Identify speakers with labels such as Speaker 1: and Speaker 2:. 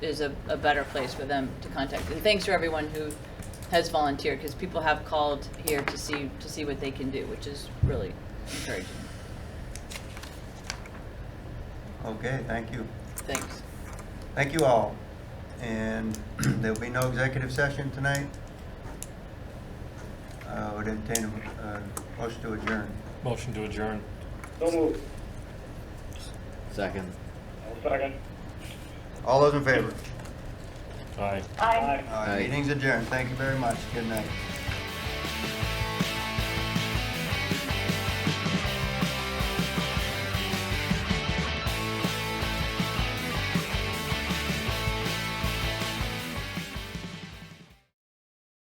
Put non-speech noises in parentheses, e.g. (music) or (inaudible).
Speaker 1: is a, a better place for them to contact. And thanks for everyone who has volunteered, because people have called here to see, to see what they can do, which is really encouraging.
Speaker 2: Okay, thank you.
Speaker 1: Thanks.
Speaker 2: Thank you all. And (clears throat) there'll be no executive session tonight. I would entertain a uh, motion to adjourn.
Speaker 3: Motion to adjourn.
Speaker 4: So moved.
Speaker 5: Second.
Speaker 4: I'll second.
Speaker 2: All those in favor?
Speaker 3: Aye.
Speaker 4: Aye.
Speaker 2: All right,
Speaker 5: Aye.
Speaker 2: Meeting's adjourned. Thank you very much. Good night.